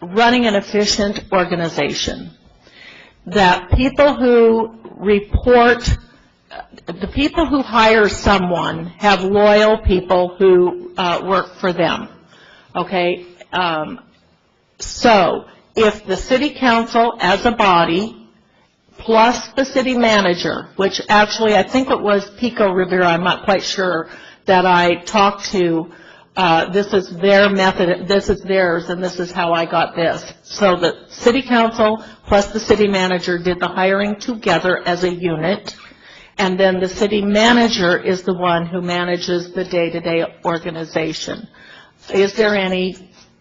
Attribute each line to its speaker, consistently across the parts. Speaker 1: running an efficient organization. That people who report, the people who hire someone have loyal people who uh, work for them, okay? Um, So, if the city council as a body plus the city manager, which actually, I think it was Pico Rivera, I'm not quite sure, that I talked to, uh, this is their method, this is theirs, and this is how I got this. So the city council plus the city manager did the hiring together as a unit, and then the city manager is the one who manages the day-to-day organization. Is there any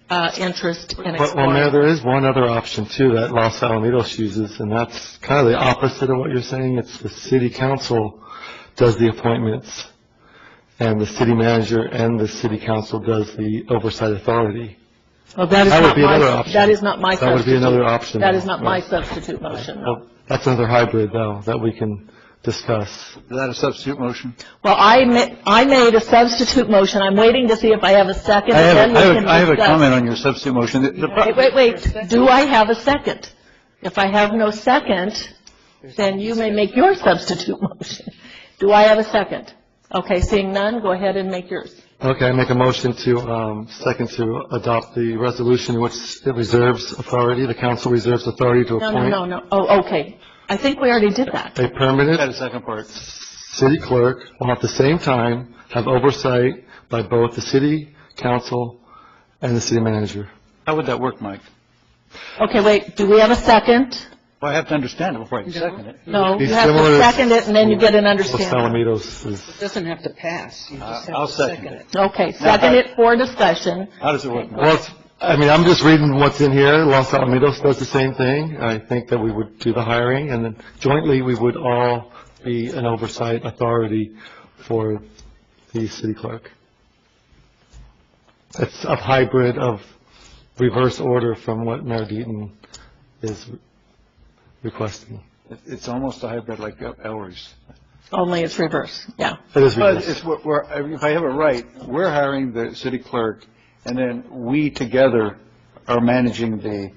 Speaker 1: uh, interest in
Speaker 2: Well, well,
Speaker 1: exploring?
Speaker 2: Mayor, there is one other option too that Los Alamitos uses, and that's kind of the opposite of what you're saying. It's the city council does the appointments, and the city manager and the city council does the oversight authority.
Speaker 1: Well, that is
Speaker 2: That would
Speaker 1: not
Speaker 2: be
Speaker 1: my-
Speaker 2: another option.
Speaker 1: That is not my
Speaker 2: That
Speaker 1: substitute.
Speaker 2: would be another option.
Speaker 1: That is not my
Speaker 2: Right.
Speaker 1: substitute motion, no.
Speaker 2: Well, That's another hybrid, though, that we can discuss.
Speaker 3: Is that a substitute motion?
Speaker 1: Well, I ma, I made a substitute motion, I'm waiting to see if I have a second,
Speaker 3: I have,
Speaker 1: and
Speaker 3: a-
Speaker 1: then we
Speaker 3: I have,
Speaker 1: can
Speaker 3: a- I have a
Speaker 1: discuss.
Speaker 3: comment on your substitute motion. The- the pro-
Speaker 1: Wait, wait, wait, do I have a second? If I have no second, then you may make your substitute motion. Do I have a second? Okay, seeing none, go ahead and make yours.
Speaker 2: Okay, I make a motion to, um, second to adopt the resolution which it reserves authority, the council reserves authority
Speaker 1: No,
Speaker 2: to
Speaker 1: no,
Speaker 2: appoint
Speaker 1: no, no, oh, okay, I think we already did that.
Speaker 2: a
Speaker 3: I had
Speaker 2: permanent
Speaker 3: a second part.
Speaker 2: city clerk while at the same time have oversight by both the city council and the city manager.
Speaker 3: How would that work, Mike?
Speaker 1: Okay, wait, do we have a second?
Speaker 3: Well, I have to understand it before I can second it.
Speaker 1: No,
Speaker 2: Be
Speaker 1: you have
Speaker 2: similar
Speaker 1: to second it, and then you get an
Speaker 2: Los
Speaker 1: understanding.
Speaker 2: Alamitos is,
Speaker 4: Doesn't have to pass, you just
Speaker 3: I'll
Speaker 4: have to
Speaker 3: second
Speaker 4: second
Speaker 3: it.
Speaker 4: it.
Speaker 1: Uh, Okay, second it for discussion.
Speaker 3: How does it work? Mike?
Speaker 2: well, it's- I mean, I'm just reading what's in here. Los Alamitos does the same thing. I think that we would do the hiring, and then jointly, we would all be an oversight authority for the city clerk. It's a hybrid of reverse order from what Mayor Deaton is requesting.
Speaker 3: It- It's almost a hybrid like uh, El- Elroy's.
Speaker 1: Only it's reverse, yeah.
Speaker 2: It is
Speaker 3: But
Speaker 2: ridiculous.
Speaker 3: it's, what we're- if I have it right, we're hiring the city clerk, and then we together are managing the,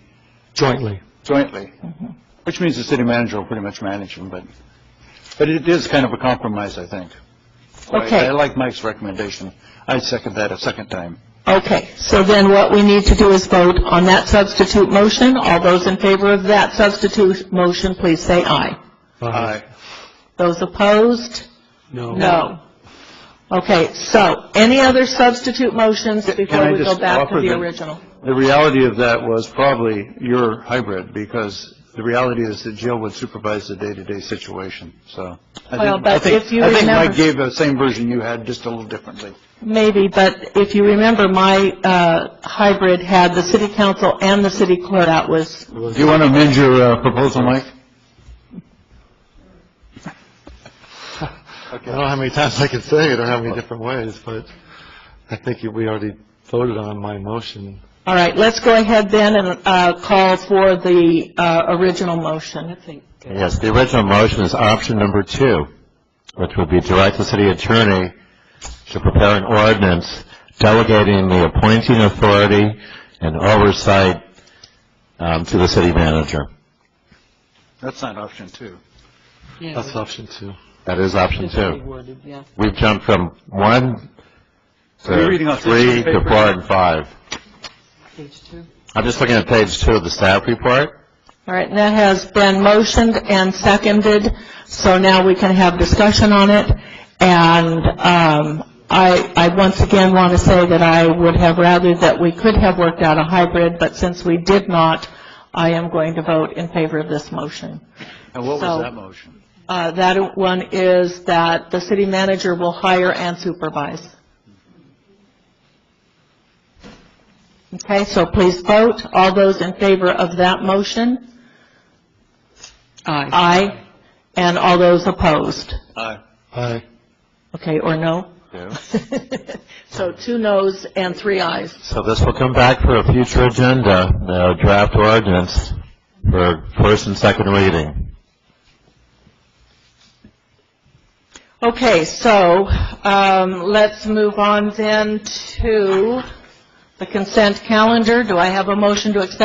Speaker 2: jointly.
Speaker 3: jointly,
Speaker 1: Mm-hmm.
Speaker 3: which means the city manager will pretty much manage them, but, but it is kind of a compromise, I think. So I-
Speaker 1: Okay.
Speaker 3: I like Mike's recommendation. I second that a second time.
Speaker 1: Okay, so then what we need to do is vote on that substitute motion. All those in favor of that substitute motion, please say aye.
Speaker 2: Uh,
Speaker 1: Those opposed? No. No. Okay, so any other substitute motions
Speaker 3: Can- can
Speaker 1: before
Speaker 3: I
Speaker 1: we go
Speaker 3: just
Speaker 1: back to
Speaker 3: offer
Speaker 1: the
Speaker 3: them?
Speaker 1: original?
Speaker 3: The reality of that was probably your hybrid, because the reality is that Jill would supervise the day-to-day situation, so. I
Speaker 1: Well,
Speaker 3: think-
Speaker 1: but
Speaker 3: I think-
Speaker 1: if you
Speaker 3: I think
Speaker 1: remember-
Speaker 3: Mike gave the same version you had, just a little differently.
Speaker 1: Maybe, but if you remember, my uh, hybrid had the city council and the city clerk. That was,
Speaker 3: Do you want to amend your uh, proposal, Mike?
Speaker 2: I don't know how many times I can say it or how many different ways, but I think we already voted on my motion.
Speaker 1: all right, let's go ahead then and uh, call for the uh, original motion.
Speaker 5: Yes, the original motion is option number two, which would be direct the city attorney to prepare an ordinance delegating the appointing authority and oversight um, to the city manager.
Speaker 3: That's not option two.
Speaker 2: That's option two.
Speaker 5: That is option two. We've jumped from one
Speaker 3: You're
Speaker 5: to
Speaker 3: reading off the
Speaker 5: three to
Speaker 3: paper.
Speaker 5: four and five. I'm just looking at page two of the staff report.
Speaker 1: All right, and that has been motioned and seconded, so now we can have discussion on it. And um, I, I once again want to say that I would have rather that we could have worked out a hybrid, but since we did not, I am going to vote in favor of this motion.
Speaker 3: And what
Speaker 1: So-
Speaker 3: was that motion?
Speaker 1: Uh, That one is that the city manager will hire and supervise. Okay, so please vote. All those in favor of that motion? Aye. Aye. And all those opposed?
Speaker 3: Aye.
Speaker 2: Aye.
Speaker 1: Okay, or no? So two noes and three ayes.
Speaker 5: So this will come back for a future agenda, the draft ordinance for first and second reading.
Speaker 1: Okay, so um, let's move on then to the consent calendar. Do I have a motion to accept